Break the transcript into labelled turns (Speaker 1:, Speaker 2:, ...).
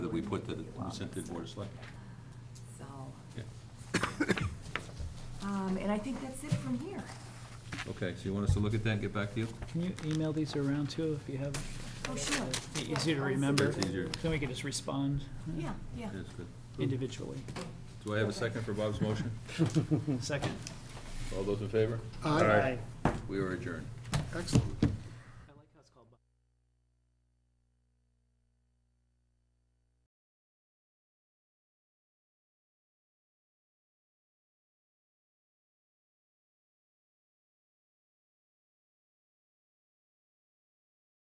Speaker 1: we put that we sent to the Board of Selectmen.
Speaker 2: So,
Speaker 1: Yeah.
Speaker 2: um, and I think that's it from here.
Speaker 1: Okay, so you want us to look at that and get back to you?
Speaker 3: Can you email these around too if you have,
Speaker 2: Oh, sure. Yeah,
Speaker 3: be easy to
Speaker 2: I'll see.
Speaker 3: remember?
Speaker 1: It's easier.
Speaker 3: Then we can just respond uh,
Speaker 2: Yeah, yeah.
Speaker 1: Yes, good.
Speaker 3: individually.
Speaker 1: Do I have a second for Bob's motion?
Speaker 3: Second.
Speaker 1: All those in favor?
Speaker 4: Aye.
Speaker 1: We are adjourned.
Speaker 4: Excellent.